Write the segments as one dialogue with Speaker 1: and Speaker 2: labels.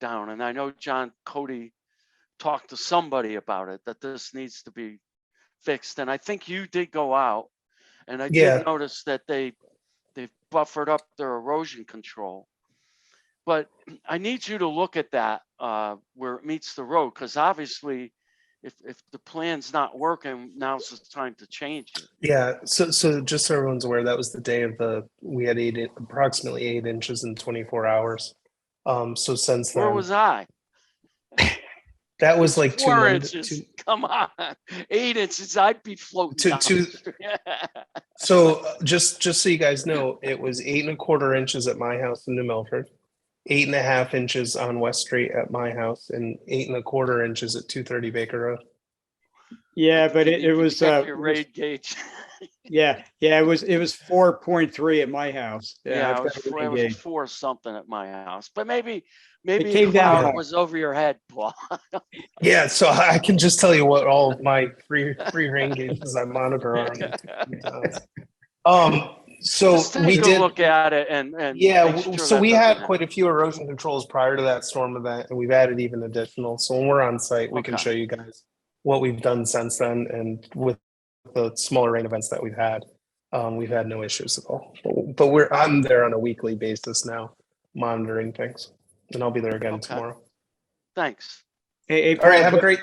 Speaker 1: down. And I know John Cody talked to somebody about it, that this needs to be fixed. And I think you did go out. And I
Speaker 2: Yeah.
Speaker 1: did notice that they, they've buffered up their erosion control. But I need you to look at that, uh, where it meets the road, because obviously if, if the plan's not working, now's the time to change it.
Speaker 2: Yeah, so so just so everyone's aware, that was the day of the we had eight in- approximately eight inches in 24 hours. Um, so since
Speaker 1: Where
Speaker 2: then,
Speaker 1: was I?
Speaker 2: that was like two,
Speaker 1: Four
Speaker 2: Monday-
Speaker 1: inches,
Speaker 2: two-
Speaker 1: come on, eight inches, I'd be floating. down
Speaker 2: two-
Speaker 1: there. Yeah.
Speaker 2: So uh, just just so you guys know, it was eight and a quarter inches at my house in New Milford, eight and a half inches on West Street at my house, and eight and a quarter inches at 230 Baker Road.
Speaker 3: Yeah, but it,
Speaker 1: You
Speaker 3: it
Speaker 1: can
Speaker 3: was,
Speaker 1: check
Speaker 3: uh,
Speaker 1: Your
Speaker 3: it was-
Speaker 1: raid gauge.
Speaker 3: yeah, yeah, it was, it was four point three at my house.
Speaker 1: Yeah,
Speaker 3: I've
Speaker 1: it was
Speaker 3: got
Speaker 1: four, it
Speaker 3: it
Speaker 1: was
Speaker 3: engaged.
Speaker 1: four something at my house, but maybe, maybe
Speaker 3: came down
Speaker 1: cloud
Speaker 3: hard.
Speaker 1: was over your head, Paul.
Speaker 2: Yeah, so I I can just tell you what all of my free free rain gauges I monitor are. on the times. Um, so
Speaker 1: Just
Speaker 2: we
Speaker 1: take a
Speaker 2: did.
Speaker 1: look at it and, and.
Speaker 2: Yeah,
Speaker 1: make
Speaker 2: w-
Speaker 1: sure
Speaker 2: so
Speaker 1: that
Speaker 2: we
Speaker 1: doesn't
Speaker 2: had
Speaker 1: happen.
Speaker 2: quite a few erosion controls prior to that storm event, and we've added even additional. So when we're on site, we can
Speaker 1: Okay.
Speaker 2: show you guys what we've done since then, and with the smaller rain events that we've had, um, we've had no issues at all. But- But we're, I'm there on a weekly basis now, monitoring things, and I'll be there again
Speaker 1: Okay.
Speaker 2: tomorrow.
Speaker 1: Thanks.
Speaker 3: Hey, hey,
Speaker 2: All right,
Speaker 3: Paul,
Speaker 2: have a
Speaker 3: ju-
Speaker 2: great,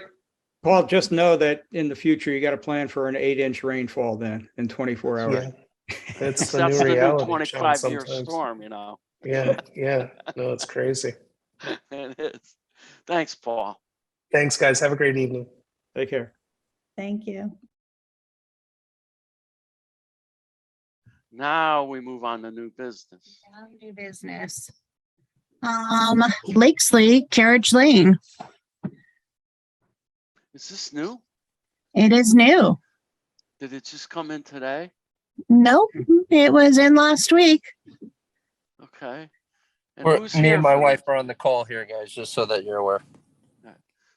Speaker 3: Paul, just know that in the future, you got to plan for an eight inch rainfall then in twenty-four hours.
Speaker 2: yeah. That's the
Speaker 1: That's
Speaker 2: new
Speaker 1: the new
Speaker 2: reality. John,
Speaker 1: twenty-five year
Speaker 2: sometimes.
Speaker 1: storm, you know?
Speaker 2: Yeah, yeah, no, it's crazy.
Speaker 1: It is. Thanks, Paul.
Speaker 2: Thanks, guys. Have a great evening.
Speaker 3: Take care.
Speaker 4: Thank you.
Speaker 1: Now we move on to new business.
Speaker 4: Now New business. Um, Lakesley Carriage Lane.
Speaker 1: Is this new?
Speaker 4: It is new.
Speaker 1: Did it just come in today?
Speaker 4: Nope, it was in last week.
Speaker 1: Okay. And
Speaker 5: We're,
Speaker 1: who's
Speaker 5: me
Speaker 1: here
Speaker 5: and my
Speaker 1: for this?
Speaker 5: wife are on the call here, guys, just so that you're aware.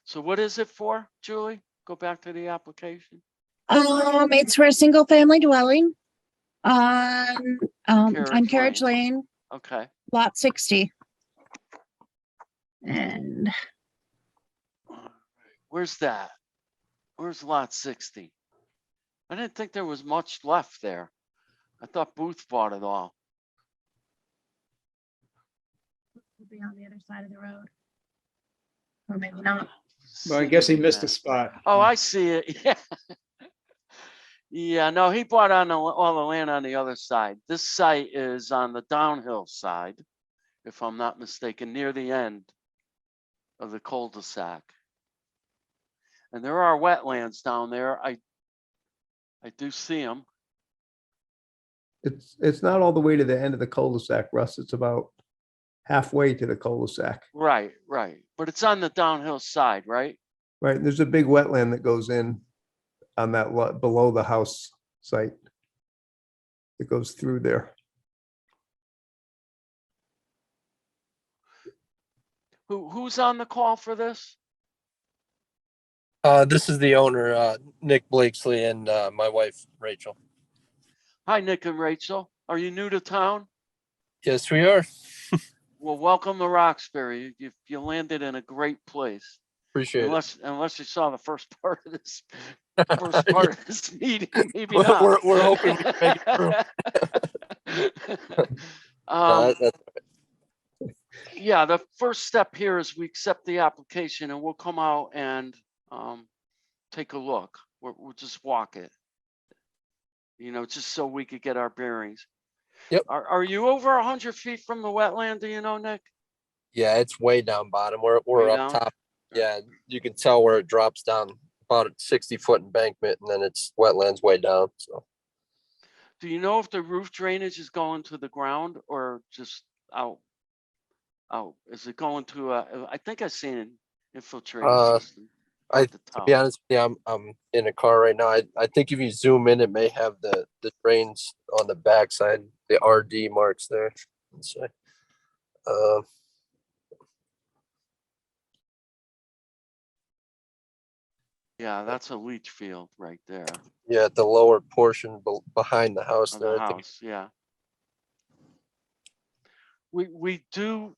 Speaker 1: So what is it for, Julie? Go back to the application.
Speaker 4: Um, it's for a single family dwelling on, um, on
Speaker 1: Carriage
Speaker 4: Carriage Lane,
Speaker 1: Okay.
Speaker 4: lot sixty. And
Speaker 1: Where's that? Where's lot sixty? I didn't think there was much left there. I thought Booth bought it all.
Speaker 4: it'll be on the other side of the road. Or maybe not.
Speaker 3: Well, I guess he missed Hmm. a
Speaker 1: us.
Speaker 3: spot.
Speaker 1: Oh, I see it, yeah. Yeah, no, he bought on the- all the land on the other side. This site is on the downhill side, if I'm not mistaken, near the end of the cul-de-sac. And there are wetlands down there. I, I do see them.
Speaker 6: It's, it's not all the way to the end of the cul-de-sac, Russ. It's about halfway to the cul-de-sac,
Speaker 1: Right, right. But it's on the downhill side, right?
Speaker 6: right? There's a big wetland that goes in on that lot below the house site. It goes through there.
Speaker 1: Who, who's on the call for this?
Speaker 5: Uh, this is the owner, uh, Nick Blakesley and, uh, my wife, Rachel.
Speaker 1: Hi, Nick and Rachel. Are you new to town?
Speaker 5: Yes, we are.
Speaker 1: Well, welcome to Roxbury. You, you landed in a great place.
Speaker 5: Appreciate it.
Speaker 1: Unless, unless you saw the first part of this, first part of this meeting, maybe
Speaker 5: We're-
Speaker 1: not.
Speaker 5: we're- we're hoping we can make Uh,
Speaker 1: Um,
Speaker 5: that's-
Speaker 1: yeah, the first step here is we accept the application and we'll come out and, um, take a look. We'll, we'll just walk it. You know, just so we could get our bearings.
Speaker 5: Yep.
Speaker 1: Are, are you over a hundred feet from the wetland? Do you know, Nick?
Speaker 5: Yeah, it's way down bottom. We're, we're
Speaker 1: Way
Speaker 5: up
Speaker 1: down?
Speaker 5: top. Yeah, you can tell where it drops down about a sixty foot embankment and then it's wetlands way down. So
Speaker 1: Do you know if the roof drainage is going to the ground or just out? Out, is it going to, uh, I think I seen an infiltrating
Speaker 5: Uh,
Speaker 1: system.
Speaker 5: I-
Speaker 1: at the top.
Speaker 5: be honest, yeah, I'm, I'm in a car right now. I, I think if you zoom in, it may have the, the drains on the backside, the RD marks there. Let's see. Uh,
Speaker 1: Yeah, that's a leach field right there
Speaker 5: yeah, at the lower portion bel behind the house
Speaker 1: of
Speaker 5: there.
Speaker 1: the
Speaker 5: I think-
Speaker 1: house, yeah. We, we do